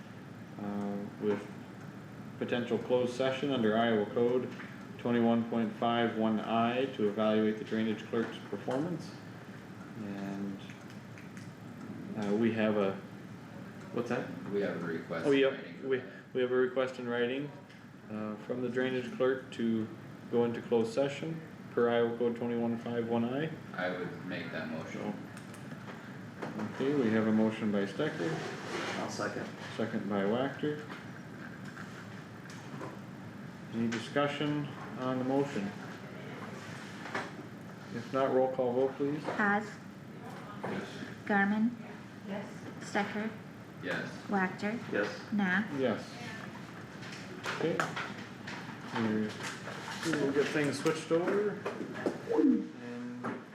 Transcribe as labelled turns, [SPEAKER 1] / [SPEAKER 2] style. [SPEAKER 1] uh, with potential closed session under Iowa Code twenty-one point five one I to evaluate the drainage clerk's performance. And, uh, we have a, what's that?
[SPEAKER 2] We have a request.
[SPEAKER 1] Oh, yep,
[SPEAKER 2] waiting for
[SPEAKER 1] we,
[SPEAKER 2] that.
[SPEAKER 1] we have a request in writing, uh, from the drainage clerk to go into closed session per Iowa Code twenty-one five one I.
[SPEAKER 2] I would make that motion.
[SPEAKER 1] Okay, we have a motion by Stecker,
[SPEAKER 3] I'll second.
[SPEAKER 1] second by Wactor. Any discussion on the motion? If not, roll call vote please.
[SPEAKER 4] Haas,
[SPEAKER 1] Oh.
[SPEAKER 2] Yes.
[SPEAKER 4] Garmin. Yes. Stecker,
[SPEAKER 2] Yes.
[SPEAKER 4] Wactor,
[SPEAKER 3] Yes.
[SPEAKER 4] Nah.
[SPEAKER 1] Yes. Okay. We're- We'll get things switched over.